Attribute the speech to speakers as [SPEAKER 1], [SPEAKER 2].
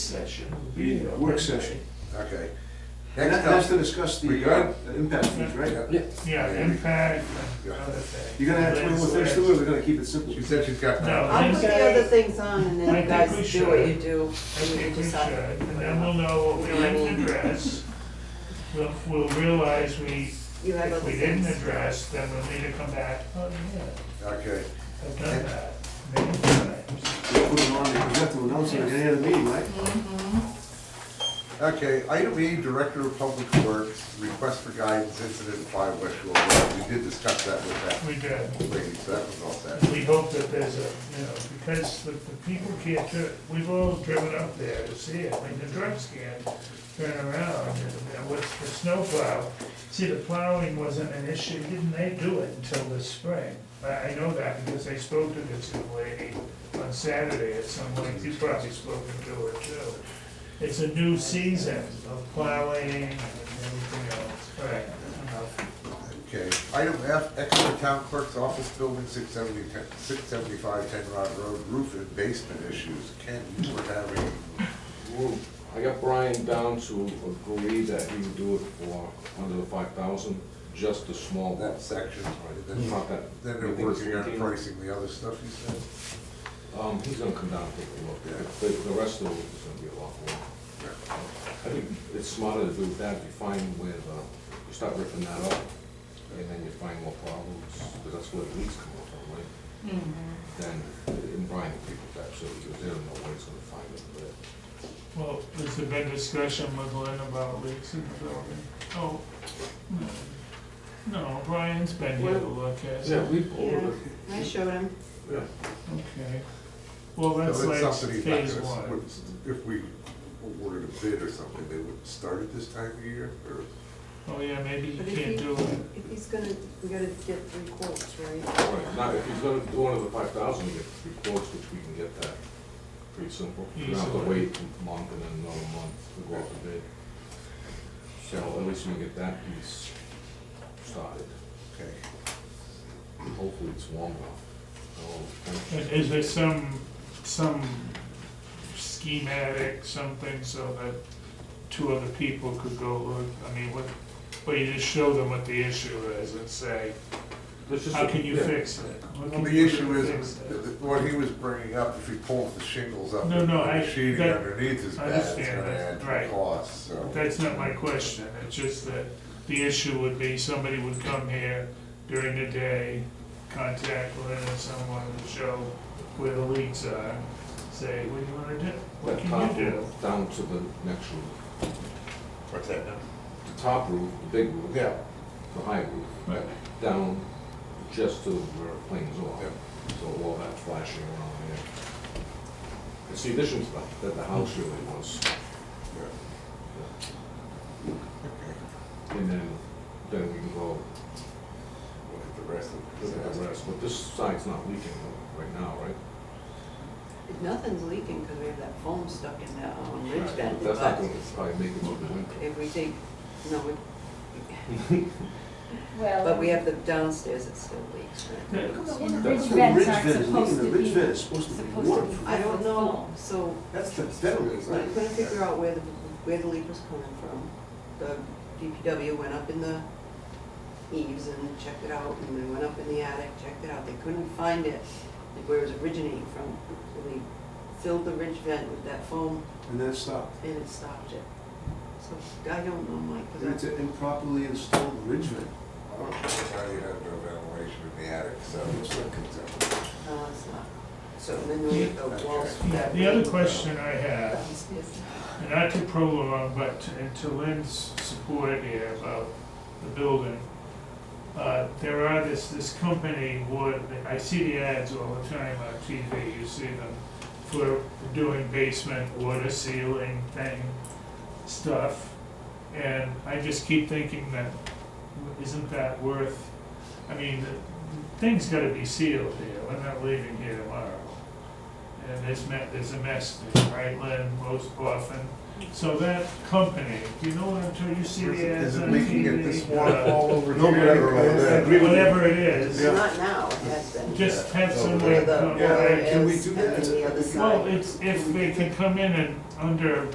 [SPEAKER 1] session.
[SPEAKER 2] Meeting, a work session.
[SPEAKER 3] Okay.
[SPEAKER 2] And that-
[SPEAKER 3] Next
[SPEAKER 2] that's
[SPEAKER 3] up,
[SPEAKER 2] to discuss the uh,
[SPEAKER 3] regard-
[SPEAKER 2] the impact fees, right?
[SPEAKER 3] yeah,
[SPEAKER 4] Yeah, impact and other things.
[SPEAKER 2] You're gonna add twenty more things to it, or we're gonna keep it simple?
[SPEAKER 3] she said she's got.
[SPEAKER 4] No.
[SPEAKER 5] I'll put the other things on and then
[SPEAKER 4] I
[SPEAKER 5] you
[SPEAKER 4] think we
[SPEAKER 5] guys do what you
[SPEAKER 4] should.
[SPEAKER 5] do.
[SPEAKER 4] I
[SPEAKER 5] and you
[SPEAKER 4] think we should,
[SPEAKER 5] decide.
[SPEAKER 4] and then we'll know what we didn't address. We'll, we'll realize we,
[SPEAKER 5] You have
[SPEAKER 4] if
[SPEAKER 5] other
[SPEAKER 4] we didn't
[SPEAKER 5] things.
[SPEAKER 4] address, then we'll need to come back, oh yeah,
[SPEAKER 3] Okay,
[SPEAKER 4] I've done that many times.
[SPEAKER 2] We'll put them on, there. we have to announce it at the end of the meeting, right?
[SPEAKER 3] okay, item E, Director of Public Works, request for guidance, incident five West Shore Road. We did discuss that with
[SPEAKER 4] We did.
[SPEAKER 3] that lady, so that was all set.
[SPEAKER 4] We hope that there's a, you know, because the, the people can't turn, we've all driven up there to see it, I mean, the trucks can't turn around, and and with the snowplow. See, the plowing wasn't an issue, didn't they do it until this spring? I, I know that because I spoke to this young lady on Saturday at some length, you probably spoken to her too. It's a new season of plowing and everything else, right?
[SPEAKER 3] Okay, item F, Exeter Town Clerk's Office Building, 670 675 Ten Rod Road, roof and basement issues. Ken, you were having,
[SPEAKER 6] Well, I got Brian down to agree that he would do it for under the five thousand, just a small one.
[SPEAKER 3] that section, right?
[SPEAKER 6] That's
[SPEAKER 3] Then-
[SPEAKER 6] not that.
[SPEAKER 3] Then they're
[SPEAKER 6] big
[SPEAKER 3] working on
[SPEAKER 6] deal.
[SPEAKER 3] pricing the other stuff, you said?
[SPEAKER 6] Um, he's gonna come down and take a look at it, but the rest of it is gonna be a lot more.
[SPEAKER 3] Yeah.
[SPEAKER 6] I think it's smarter to do that, if you find where, uh, you start ripping that up, and then you find more problems, because that's where the leaks come up from, right? Then, and Brian will pick it up, so, because they don't know where it's gonna find it, but.
[SPEAKER 4] Well, there's been discussion with Lynn about leaks in the building. Oh, no. no, Brian's been here to look at it.
[SPEAKER 6] we
[SPEAKER 5] Yeah, I showed him.
[SPEAKER 6] yeah.
[SPEAKER 4] Okay. Well,
[SPEAKER 3] No,
[SPEAKER 4] that's like
[SPEAKER 3] something he's not
[SPEAKER 4] phase
[SPEAKER 3] gonna-
[SPEAKER 4] one.
[SPEAKER 3] would- If we awarded a bid or something, they would start at this time of year, or?
[SPEAKER 4] Oh, yeah, maybe you
[SPEAKER 5] But if he-
[SPEAKER 4] can't do it.
[SPEAKER 5] If he's gonna, we gotta get three quotes, right?
[SPEAKER 6] Right, now, if he's gonna do one of the five thousand, you get three quotes, which we can get that, pretty simple. You don't have to
[SPEAKER 4] Easily.
[SPEAKER 6] wait a month and then another month to go out to bid. So at least we can get that piece started,
[SPEAKER 3] Okay.
[SPEAKER 6] hopefully it's warm enough.
[SPEAKER 4] And Is there some, some schematic, something so that two other people could go look? I mean, what, well, you just show them what the issue is and say, how can you fix it? What
[SPEAKER 3] Well,
[SPEAKER 4] can
[SPEAKER 3] the
[SPEAKER 4] you
[SPEAKER 3] issue
[SPEAKER 4] do to
[SPEAKER 3] is,
[SPEAKER 4] fix it?
[SPEAKER 3] th- th- what he was bringing up, if he pulls the shingles up,
[SPEAKER 4] No,
[SPEAKER 3] and
[SPEAKER 4] no,
[SPEAKER 3] the
[SPEAKER 4] I-
[SPEAKER 3] sheeting
[SPEAKER 4] that-
[SPEAKER 3] underneath is
[SPEAKER 4] I
[SPEAKER 3] bad, it's
[SPEAKER 4] understand
[SPEAKER 3] gonna
[SPEAKER 4] that,
[SPEAKER 3] add to the
[SPEAKER 4] right.
[SPEAKER 3] cost, so.
[SPEAKER 4] That's not my question, it's just that the issue would be somebody would come here during the day, contact Lynn and someone to show where the leaks are, say, what do you wanna do? What
[SPEAKER 6] That top
[SPEAKER 4] can you do?
[SPEAKER 6] roof down to the next roof,
[SPEAKER 3] What's that now?
[SPEAKER 6] the top roof, the big roof,
[SPEAKER 3] Yeah,
[SPEAKER 6] the high roof,
[SPEAKER 4] Right.
[SPEAKER 6] down just to where planes
[SPEAKER 3] yeah,
[SPEAKER 6] are. So all that flashing around there. It's the addition stuff that the house really was.
[SPEAKER 3] yeah. Okay,
[SPEAKER 6] And then, then we can go
[SPEAKER 3] look at the rest
[SPEAKER 6] look at
[SPEAKER 3] of
[SPEAKER 6] the
[SPEAKER 3] it.
[SPEAKER 6] rest, but this side's not leaking right now, right?
[SPEAKER 5] If Nothing's leaking because we have that foam stuck in that on
[SPEAKER 6] Right,
[SPEAKER 5] Ridge Bend,
[SPEAKER 6] That's not
[SPEAKER 5] but
[SPEAKER 6] gonna probably make it over the winter.
[SPEAKER 5] if we think, no, we-
[SPEAKER 7] Well.
[SPEAKER 5] but we have the downstairs, it still leaks, right?
[SPEAKER 7] And the
[SPEAKER 2] That's
[SPEAKER 7] ridge
[SPEAKER 2] the
[SPEAKER 7] vents
[SPEAKER 2] ridge
[SPEAKER 7] aren't
[SPEAKER 2] vent is
[SPEAKER 7] supposed
[SPEAKER 2] leaking.
[SPEAKER 7] to
[SPEAKER 2] The ridge
[SPEAKER 7] be,
[SPEAKER 2] vent is supposed to be
[SPEAKER 7] supposed to
[SPEAKER 2] warm.
[SPEAKER 7] be.
[SPEAKER 5] I don't know,
[SPEAKER 7] foam.
[SPEAKER 5] so
[SPEAKER 2] That's the federal,
[SPEAKER 5] I
[SPEAKER 2] right?
[SPEAKER 5] couldn't figure out where the, where the leak was coming from. The DPW went up in the eaves and checked it out, and they went up in the attic, checked it out, they couldn't find it, like where it was originating from. So they filled the ridge vent with that foam,
[SPEAKER 2] And then it stopped.
[SPEAKER 5] and it stopped it. So I don't know, Mike,
[SPEAKER 2] And It's
[SPEAKER 5] because
[SPEAKER 2] an improperly installed ridge vent.
[SPEAKER 3] Well, Now you have no ventilation in the attic, so it's not concerned.
[SPEAKER 5] I, no, it's not. So then we have the walls.
[SPEAKER 4] Yeah,
[SPEAKER 5] that
[SPEAKER 4] the other
[SPEAKER 5] way.
[SPEAKER 4] question I have
[SPEAKER 5] Downstairs.
[SPEAKER 4] And not to prolong, but to- and to Lynn's support here about the building, uh, there are this, this company would, I see the ads all the time on TV, you see them for doing basement water sealing thing, stuff. And I just keep thinking that, isn't that worth, I mean, the thing's gotta be sealed here, we're not leaving here tomorrow. and there's me, there's a mess, in Brightland, most often. So that company, you know, until you see the ads
[SPEAKER 3] Is it
[SPEAKER 4] on
[SPEAKER 3] leaking at
[SPEAKER 4] TV.
[SPEAKER 3] this one
[SPEAKER 4] uh,
[SPEAKER 3] all over
[SPEAKER 2] No, but I-
[SPEAKER 3] here or
[SPEAKER 2] I- I
[SPEAKER 3] over there?
[SPEAKER 2] agree with you.
[SPEAKER 4] Whatever it is,
[SPEAKER 2] Yeah.
[SPEAKER 5] Not now, it has been.
[SPEAKER 4] just
[SPEAKER 3] Yeah.
[SPEAKER 4] have
[SPEAKER 3] So
[SPEAKER 4] some
[SPEAKER 5] Where
[SPEAKER 4] way.
[SPEAKER 5] the
[SPEAKER 4] of-
[SPEAKER 2] Yeah,
[SPEAKER 5] water
[SPEAKER 2] can we
[SPEAKER 5] is
[SPEAKER 2] do
[SPEAKER 5] and
[SPEAKER 2] that?
[SPEAKER 5] then the other
[SPEAKER 2] Well,
[SPEAKER 5] side.
[SPEAKER 4] Well, it's, if they can come in and under